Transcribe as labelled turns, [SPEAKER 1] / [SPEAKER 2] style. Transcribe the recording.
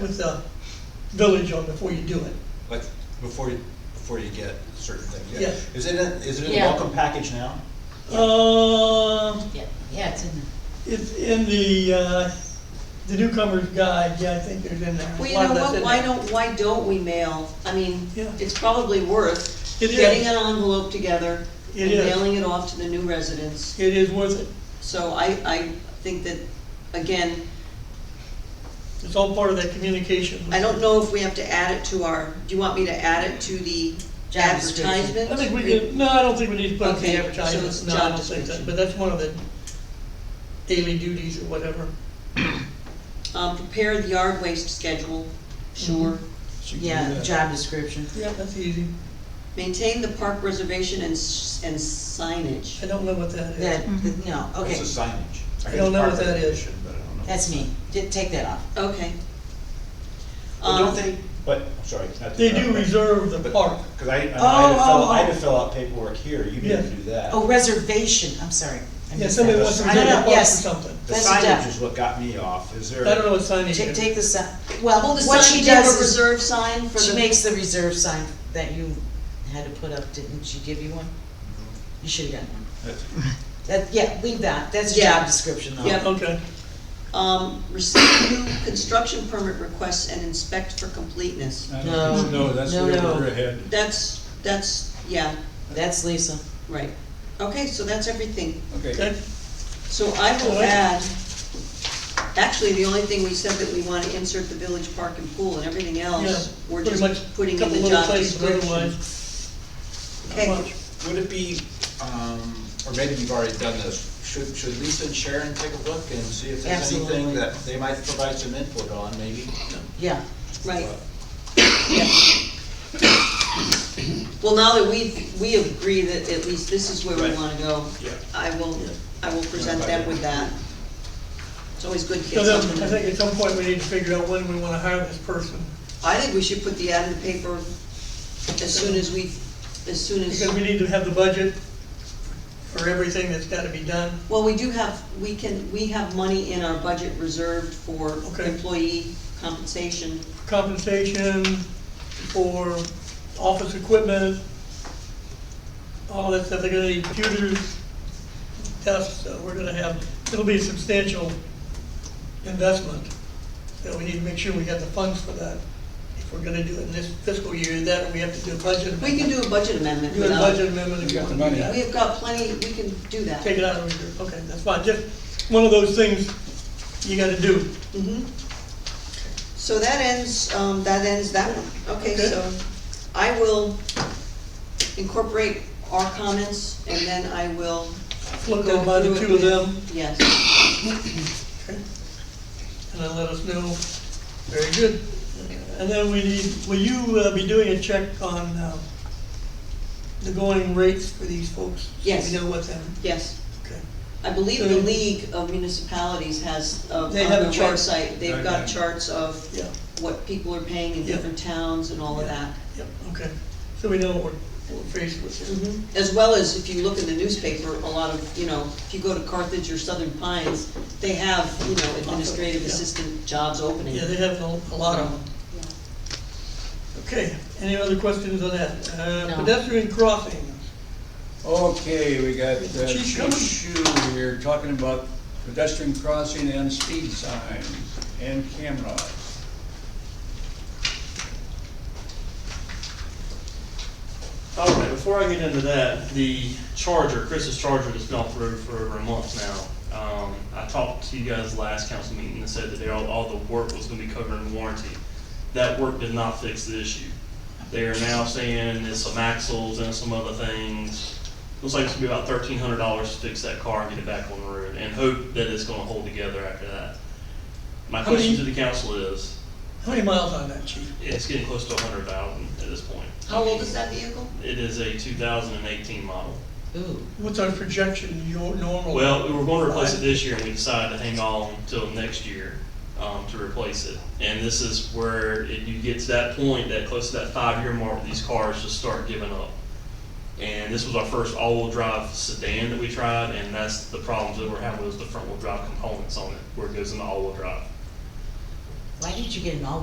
[SPEAKER 1] with the village on before you do it.
[SPEAKER 2] Like, before you, before you get certain things, yeah.
[SPEAKER 1] Yes.
[SPEAKER 2] Is it, in- is it in the
[SPEAKER 3] Yeah.
[SPEAKER 2] welcome package now?
[SPEAKER 1] Um,
[SPEAKER 3] Yeah, yeah, it's in the.
[SPEAKER 1] it's in the, uh, the newcomer's guide, yeah, I think there's in there.
[SPEAKER 4] Well,
[SPEAKER 1] A
[SPEAKER 4] you
[SPEAKER 1] lot
[SPEAKER 4] know
[SPEAKER 1] of that's
[SPEAKER 4] what,
[SPEAKER 1] in
[SPEAKER 4] why
[SPEAKER 1] there.
[SPEAKER 4] don't, why don't we mail, I mean,
[SPEAKER 1] Yeah.
[SPEAKER 4] it's probably worth
[SPEAKER 1] It is.
[SPEAKER 4] getting an envelope together
[SPEAKER 1] It
[SPEAKER 4] and
[SPEAKER 1] is.
[SPEAKER 4] mailing it off to the new residents.
[SPEAKER 1] It is worth it,
[SPEAKER 4] So I, I think that, again,
[SPEAKER 1] it's all part of that communication.
[SPEAKER 4] I don't know if we have to add it to our, do you want me to add it to the
[SPEAKER 3] Job description.
[SPEAKER 4] advertisement?
[SPEAKER 1] I think we could, no, I don't think we need to put it in
[SPEAKER 4] Okay,
[SPEAKER 1] the
[SPEAKER 4] so it's
[SPEAKER 1] advertisement, no, I
[SPEAKER 4] job
[SPEAKER 1] don't think that,
[SPEAKER 4] description.
[SPEAKER 1] but that's one of the daily duties or whatever.
[SPEAKER 4] Um, prepare the yard waste schedule, Mm-hmm.
[SPEAKER 3] Sure.
[SPEAKER 2] She can do
[SPEAKER 3] Yeah,
[SPEAKER 2] that.
[SPEAKER 3] job description.
[SPEAKER 1] Yeah, that's easy,
[SPEAKER 4] maintain the park reservation and, s- and
[SPEAKER 1] I
[SPEAKER 4] signage.
[SPEAKER 1] don't know what that is.
[SPEAKER 3] That,
[SPEAKER 4] Mm-hmm.
[SPEAKER 3] that- no, okay,
[SPEAKER 2] What's the signage?
[SPEAKER 1] I don't know what that is.
[SPEAKER 2] But I don't know.
[SPEAKER 3] that's me. Di- Take that off.
[SPEAKER 4] Okay.
[SPEAKER 2] Well, don't
[SPEAKER 4] Um,
[SPEAKER 2] they, but, I'm sorry. not to
[SPEAKER 1] They do
[SPEAKER 2] interrupt, but-
[SPEAKER 1] reserve the
[SPEAKER 2] but-
[SPEAKER 1] park,
[SPEAKER 2] Cause I, I had to fill, I had
[SPEAKER 3] oh,
[SPEAKER 2] to fill out paperwork here, you
[SPEAKER 1] Yeah.
[SPEAKER 2] didn't do that.
[SPEAKER 3] Oh, reservation, I'm sorry. I
[SPEAKER 1] yeah,
[SPEAKER 3] missed
[SPEAKER 1] somebody
[SPEAKER 3] that.
[SPEAKER 1] wants to
[SPEAKER 3] I
[SPEAKER 1] reserve
[SPEAKER 3] know,
[SPEAKER 1] the park for
[SPEAKER 3] yes.
[SPEAKER 1] something.
[SPEAKER 2] The
[SPEAKER 3] that's a
[SPEAKER 2] signage
[SPEAKER 3] duck.
[SPEAKER 2] is what got me off, is there?
[SPEAKER 1] I don't know what sign it
[SPEAKER 3] Take,
[SPEAKER 1] is.
[SPEAKER 3] take the sign, well,
[SPEAKER 4] Well, the
[SPEAKER 3] what
[SPEAKER 4] sign,
[SPEAKER 3] she
[SPEAKER 4] you have a
[SPEAKER 3] does is,
[SPEAKER 4] reserve sign for the.
[SPEAKER 3] she makes the reserve sign that you had to put up, didn't she give you one?
[SPEAKER 1] Mm-hmm.
[SPEAKER 3] You should've gotten one.
[SPEAKER 2] That's-
[SPEAKER 3] That, yeah, leave that, that's a
[SPEAKER 4] Yeah.
[SPEAKER 3] job description though.
[SPEAKER 4] Yeah.
[SPEAKER 1] Okay,
[SPEAKER 4] Um, receive new construction permit requests and inspect for completeness.
[SPEAKER 5] I
[SPEAKER 3] No.
[SPEAKER 5] don't think so. No, that's
[SPEAKER 3] No,
[SPEAKER 5] way
[SPEAKER 3] no.
[SPEAKER 5] over ahead.
[SPEAKER 4] That's, that's, yeah,
[SPEAKER 3] That's Lisa.
[SPEAKER 4] right. Okay, so that's everything.
[SPEAKER 5] Okay,
[SPEAKER 1] okay,
[SPEAKER 4] So I will add, actually, the only thing we said that we wanna insert the village park and pool and everything
[SPEAKER 1] yeah,
[SPEAKER 4] else, we're
[SPEAKER 1] pretty much,
[SPEAKER 4] just putting
[SPEAKER 1] couple
[SPEAKER 4] in the
[SPEAKER 1] little
[SPEAKER 4] job
[SPEAKER 1] places, but
[SPEAKER 4] description.
[SPEAKER 1] otherwise, not
[SPEAKER 4] Okay,
[SPEAKER 1] much.
[SPEAKER 2] Would it be, um, or maybe you've already done this, should, should Lisa and Sharon take a look and see if there's anything
[SPEAKER 3] Absolutely.
[SPEAKER 2] that they might provide some input on, maybe?
[SPEAKER 3] Yeah,
[SPEAKER 4] right, yeah. Well, now that we've, we agree that at least this is where we
[SPEAKER 2] Right.
[SPEAKER 4] wanna go,
[SPEAKER 2] Yeah.
[SPEAKER 4] I will,
[SPEAKER 2] Yeah.
[SPEAKER 4] I will present them with that. It's always good to
[SPEAKER 1] So
[SPEAKER 4] get
[SPEAKER 1] then,
[SPEAKER 4] something.
[SPEAKER 1] I think at some point we need to figure out when we wanna hire this person,
[SPEAKER 4] I think we should put the ad in the paper as soon as we, as soon
[SPEAKER 1] because we
[SPEAKER 4] as,
[SPEAKER 1] need to have the budget for everything that's gotta be done.
[SPEAKER 4] well, we do have, we can, we have money in our budget reserved for
[SPEAKER 1] Okay.
[SPEAKER 4] employee compensation.
[SPEAKER 1] Compensation for office equipment, all that stuff, they're gonna need computers, desks, so we're gonna have, it'll be a substantial investment. So we need to make sure we got the funds for that. If we're gonna do it in this fiscal year, that, we have to do a budget.
[SPEAKER 4] We can do a budget amendment
[SPEAKER 1] Do a
[SPEAKER 4] without,
[SPEAKER 1] budget amendment. if
[SPEAKER 5] You got the
[SPEAKER 1] we want to do
[SPEAKER 5] money.
[SPEAKER 1] that.
[SPEAKER 4] we have got plenty, we can do that.
[SPEAKER 1] Take it out of reserve, okay, that's fine, just one of those things you gotta do.
[SPEAKER 4] Mhm. So that ends, um, that ends that one. Okay,
[SPEAKER 1] Okay.
[SPEAKER 4] so I will incorporate our comments and then I will
[SPEAKER 1] Look
[SPEAKER 4] go
[SPEAKER 1] at by
[SPEAKER 4] through
[SPEAKER 1] the
[SPEAKER 4] it
[SPEAKER 1] two of
[SPEAKER 4] with-
[SPEAKER 1] them,
[SPEAKER 4] Yes.
[SPEAKER 1] and then let us know, very good. And then we need, will you uh, be doing a check on, um, the going rates for these folks? So
[SPEAKER 4] Yes.
[SPEAKER 1] We know what's in,
[SPEAKER 4] Yes.
[SPEAKER 1] okay,
[SPEAKER 4] I believe the
[SPEAKER 1] So-
[SPEAKER 4] League of Municipalities has, uh, on
[SPEAKER 1] They have a
[SPEAKER 4] their
[SPEAKER 1] chart.
[SPEAKER 4] website, they've got
[SPEAKER 5] Okay.
[SPEAKER 4] charts of
[SPEAKER 1] yeah,
[SPEAKER 4] what people are paying in
[SPEAKER 1] Yeah.
[SPEAKER 4] different towns and all of that.
[SPEAKER 1] yeah, okay, so we know what we're, what we're faced with here.
[SPEAKER 4] Mm-hmm. As well as if you look in the newspaper, a lot of, you know, if you go to Carthage or Southern Pines, they have, you know, administrative
[SPEAKER 1] Yeah.
[SPEAKER 4] assistant jobs opening.
[SPEAKER 1] Yeah, they have a a lot of them. Okay, any other questions on that? Uh,
[SPEAKER 3] No.
[SPEAKER 1] Pedestrian crossings,
[SPEAKER 5] okay, we got, uh,
[SPEAKER 1] Chief Schuman.
[SPEAKER 5] Shu here talking about pedestrian crossing and speed signs and cameras.
[SPEAKER 6] All right, before I get into that, the charger, Chris's charger has been off the road for over a month now. Um, I talked to you guys last council meeting and said that they, all, all the work was gonna be covered in warranty. That work did not fix the issue. They are now saying it's some axles and some other things. Looks like it's gonna be about thirteen hundred dollars to fix that car and get it back on the road and hope that it's gonna hold together after that. My
[SPEAKER 1] How many-
[SPEAKER 6] question to the council is,
[SPEAKER 1] how many miles on that, chief?
[SPEAKER 6] it's getting close to a hundred thousand at this point.
[SPEAKER 4] How old is that vehicle?
[SPEAKER 6] It is a two thousand and eighteen model.
[SPEAKER 3] ooh,
[SPEAKER 1] What's our projection, your normal?
[SPEAKER 6] Well, we were gonna replace it this year, and we decided to hang on till next year, um, to replace it. And this is where it, you get to that point, that close to that five-year mark, these cars just start giving up. And this was our first all-wheel drive sedan that we tried, and that's the problems that we're having, was the front-wheel drive components on it, where it goes into all-wheel drive.
[SPEAKER 3] why did you get an all